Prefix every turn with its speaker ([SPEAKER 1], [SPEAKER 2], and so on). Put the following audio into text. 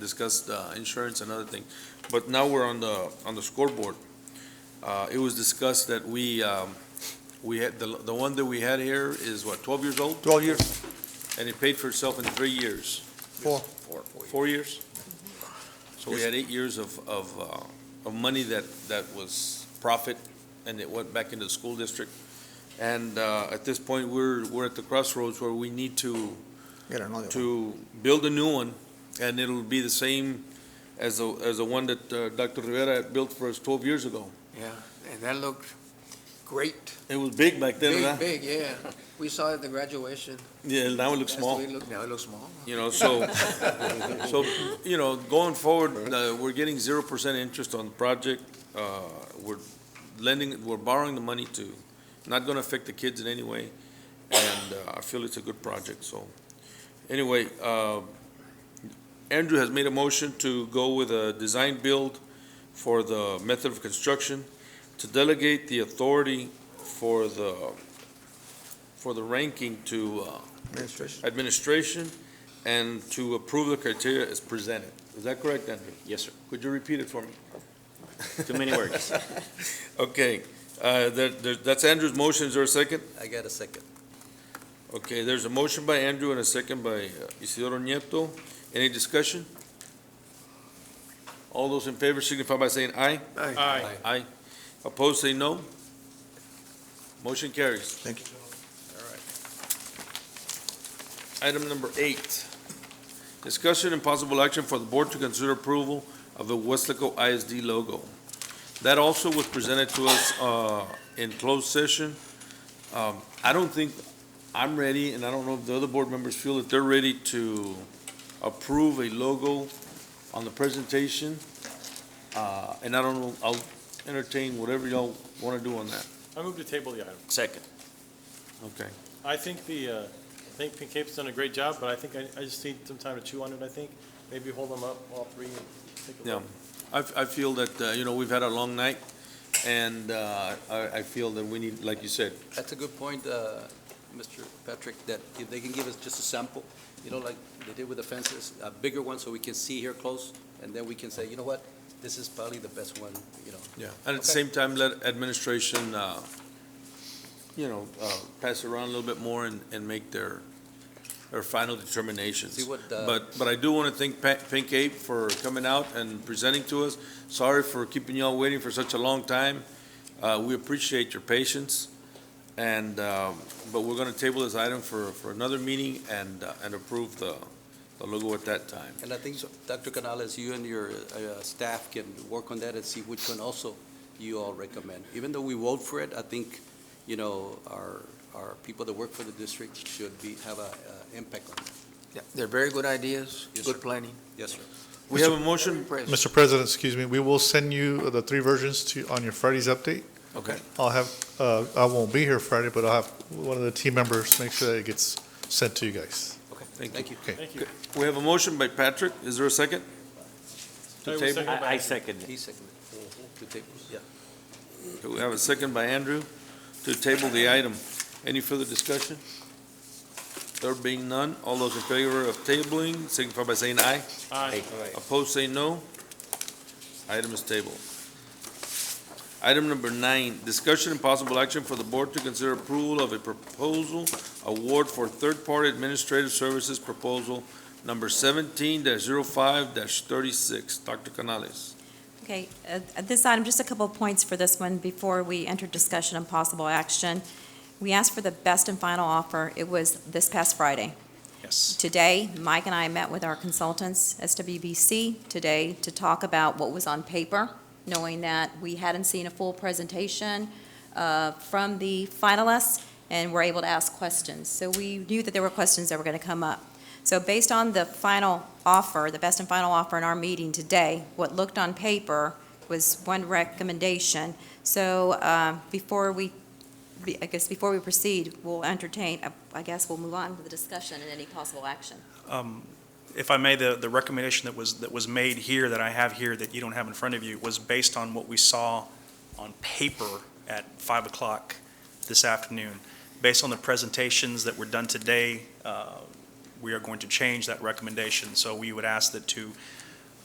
[SPEAKER 1] discussed uh, insurance and other thing. But now we're on the, on the scoreboard. Uh, It was discussed that we, um, we had, the, the one that we had here is what, 12 years old?
[SPEAKER 2] 12 years,
[SPEAKER 1] And it paid for itself in three years,
[SPEAKER 2] four.
[SPEAKER 1] four years? So we had eight years of, of, uh, of money that, that was profit, and it went back into the school district. And uh, at this point, we're, we're at the crossroads where we need to
[SPEAKER 2] Get another one.
[SPEAKER 1] to build a new one, and it'll be the same as the, as the one that uh, Dr. Rivera had built for us twelve years ago.
[SPEAKER 3] Yeah, and that looked great.
[SPEAKER 1] It was big back then,
[SPEAKER 3] Big,
[SPEAKER 1] huh?
[SPEAKER 3] big, yeah. We saw it at the graduation.
[SPEAKER 1] Yeah, now it looks
[SPEAKER 3] That's the
[SPEAKER 1] small,
[SPEAKER 3] way it looked. Now it looks small.
[SPEAKER 1] you know, so, so, you know, going forward, uh, we're getting zero percent interest on the project. Uh, We're lending, we're borrowing the money to, not gonna affect the kids in any way, and uh, I feel it's a good project, so. Anyway, uh, Andrew has made a motion to go with a design build for the method of construction, to delegate the authority for the, for the ranking to uh,
[SPEAKER 2] Administration.
[SPEAKER 1] administration, and to approve the criteria as presented. Is that correct, Andrew?
[SPEAKER 4] Yes, sir.
[SPEAKER 1] Could you repeat it for me?
[SPEAKER 4] Too many words.
[SPEAKER 1] Okay, uh, there- there- that's Andrew's motion, is there a second?
[SPEAKER 5] I got a second.
[SPEAKER 1] Okay, there's a motion by Andrew and a second by uh, Isidoro Nieto. Any discussion? All those in favor signify by saying aye.
[SPEAKER 3] Aye.
[SPEAKER 1] Aye. Opposed, say no. Motion carries.
[SPEAKER 2] Thank you.
[SPEAKER 1] Item number eight, discussion and possible action for the board to consider approval of the Westlaco ISD logo. That also was presented to us uh, in closed session. Um, I don't think I'm ready, and I don't know if the other board members feel that they're ready to approve a logo on the presentation. Uh, And I don't know, I'll entertain whatever y'all want to do on that.
[SPEAKER 6] I move to table the item.
[SPEAKER 4] Second.
[SPEAKER 1] Okay.
[SPEAKER 6] I think the, uh, I think Pink Cape's done a great job, but I think I, I just need some time to chew on it, I think. Maybe hold them up, all three, and take a
[SPEAKER 1] Yeah,
[SPEAKER 6] look.
[SPEAKER 1] I, f- I feel that, uh, you know, we've had a long night, and uh, I, I feel that we need, like you said,
[SPEAKER 5] That's a good point, uh, Mr. Patrick, that if they can give us just a sample, you know, like they did with the fences, a bigger one so we can see here close, and then we can say, you know what, this is probably the best one, you know.
[SPEAKER 1] yeah, and at the same time, let administration, uh, you know, uh, pass around a little bit more and, and make their, their final determinations.
[SPEAKER 5] See what, uh,
[SPEAKER 1] But, but I do want to thank Pa- Pink Ape for coming out and presenting to us. Sorry for keeping y'all waiting for such a long time. Uh, We appreciate your patience, and, um, but we're going to table this item for, for another meeting and, uh, and approve the, the logo at that time.
[SPEAKER 5] And I think, Dr. Canales, you and your uh, staff can work on that and see which one also you all recommend. Even though we vote for it, I think, you know, our, our people that work for the district should be, have a uh, impact on it.
[SPEAKER 3] Yeah, They're very good ideas,
[SPEAKER 5] Yes, sir.
[SPEAKER 3] good planning.
[SPEAKER 5] Yes, sir.
[SPEAKER 1] We have a motion,
[SPEAKER 3] Impressed.
[SPEAKER 7] Mr. President, excuse me, we will send you the three versions to, on your Friday's update.
[SPEAKER 1] okay,
[SPEAKER 7] I'll have, uh, I won't be here Friday, but I'll have one of the team members make sure that it gets sent to you guys.
[SPEAKER 5] Okay,
[SPEAKER 1] Thank you.
[SPEAKER 5] thank you.
[SPEAKER 6] Thank you.
[SPEAKER 1] we have a motion by Patrick, is there a second?
[SPEAKER 6] I
[SPEAKER 1] To
[SPEAKER 6] will
[SPEAKER 1] table?
[SPEAKER 6] second. I- I
[SPEAKER 4] second
[SPEAKER 5] He seconded. Two tables, yeah.
[SPEAKER 1] We have a second by Andrew to table the item. Any further discussion? There being none, all those in favor of tabling signify by saying aye.
[SPEAKER 6] Aye.
[SPEAKER 1] Opposed, say no. Item is tabled. Item number nine, discussion and possible action for the board to consider approval of a proposal award for third-party administrative services proposal number seventeen 5 thirty-six. Dr. Canales.
[SPEAKER 8] Okay, uh, at this item, just a couple of points for this one before we enter discussion and possible action. We asked for the best and final offer. It was this past Friday.
[SPEAKER 4] Yes.
[SPEAKER 8] Today, Mike and I met with our consultants, SWBC, today to talk about what was on paper, knowing that we hadn't seen a full presentation uh, from the finalists and were able to ask questions. So we knew that there were questions that were going to come up. So based on the final offer, the best and final offer in our meeting today, what looked on paper was one recommendation. So uh, before we be- I guess before we proceed, we'll entertain, I- I guess we'll move on with the discussion and any possible action.
[SPEAKER 9] Um, If I may, the, the recommendation that was, that was made here, that I have here, that you don't have in front of you, was based on what we saw on paper at 5 o'clock this afternoon. Based on the presentations that were done today, uh, we are going to change that recommendation. So we would ask that to